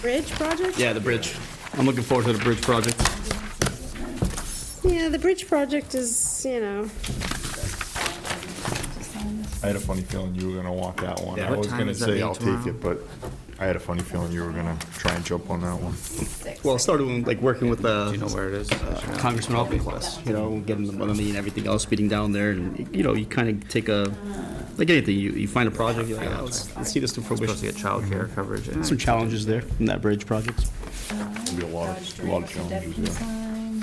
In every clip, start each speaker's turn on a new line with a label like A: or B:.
A: bridge project?
B: Yeah, the bridge. I'm looking forward to the bridge project.
A: Yeah, the bridge project is, you know,
C: I had a funny feeling you were gonna want that one.
B: Yeah.
C: I
B: What
C: was
D: time
C: gonna
D: is that
C: say
D: meeting
C: I'll take
D: tomorrow?
C: it, but I had a funny feeling you were gonna try and jump on that one.
B: Well, I started when, like working with uh,
D: Do you know where it is?
B: Congressman Alpeclas, you know, getting the money and everything else, beating down there, and you know, you kind of take a like anything. You, you find a project, you're like, oh, let's, let's see this to
D: Supposed to
B: fruition.
D: get childcare coverage. and
B: Some
D: I-
B: challenges there from that bridge project.
C: There'll be a lot of, a lot of challenges there.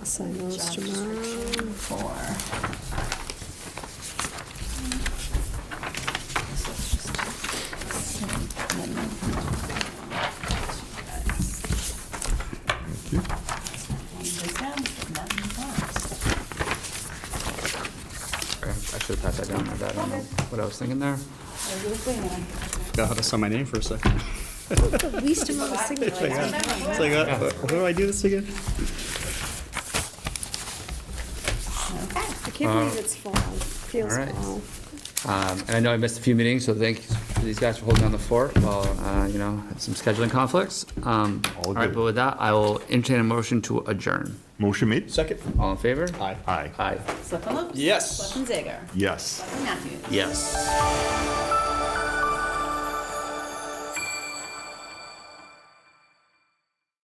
A: I'll sign those tomorrow.
D: I should have passed that down, my bad. I don't know what I was thinking there.
B: Forgot how to sign my name for a second.
A: The least amount of signatures.
B: It's like, uh, how do I do this again?
A: I can't believe it's fall, feels
D: Uh-huh. all right.
A: fall.
D: Um, And I know I missed a few meetings, so thank you- these guys for holding down the fort while, uh, you know, had some scheduling conflicts. Um,
C: All
D: All right,
C: good.
D: but with that, I will entertain a motion to adjourn.
C: Motion made?
B: Second.
D: All in favor?
B: Aye.
C: Aye.
D: Aye.
E: Selectman Lopes.
B: Yes.
E: Selectman Zager.
C: Yes.
E: Selectman Matthews.
D: Yes.